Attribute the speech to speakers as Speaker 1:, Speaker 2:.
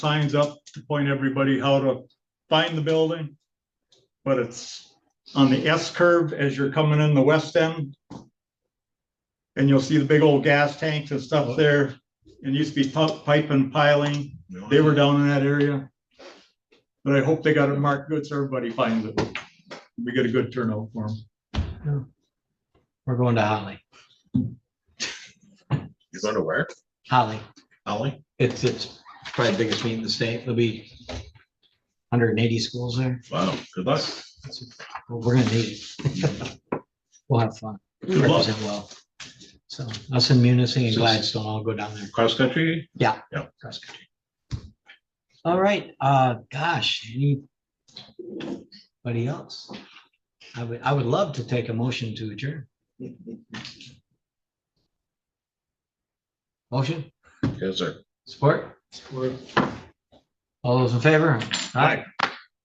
Speaker 1: signs up to point everybody how to find the building. But it's on the S curve as you're coming in the west end. And you'll see the big old gas tanks and stuff there. And used to be pu- pipe and piling. They were down in that area. But I hope they got it marked good so everybody finds it. We get a good turnout for them.
Speaker 2: We're going to Holly.
Speaker 3: You're going to where?
Speaker 2: Holly.
Speaker 3: Ollie?
Speaker 2: It's, it's probably the biggest meet in the state. There'll be hundred and eighty schools there.
Speaker 3: Wow, good luck.
Speaker 2: Well, We're gonna need it. We'll have fun.
Speaker 1: luck.
Speaker 2: Represent well. So us in Munising and Gladstone, I'll go down there.
Speaker 3: Cross country?
Speaker 2: cross country. All right, uh, gosh, anybody else? I would, I would love to take a motion to adjourn. Motion?
Speaker 3: Yes, sir.
Speaker 2: Support? All those in favor? Aye.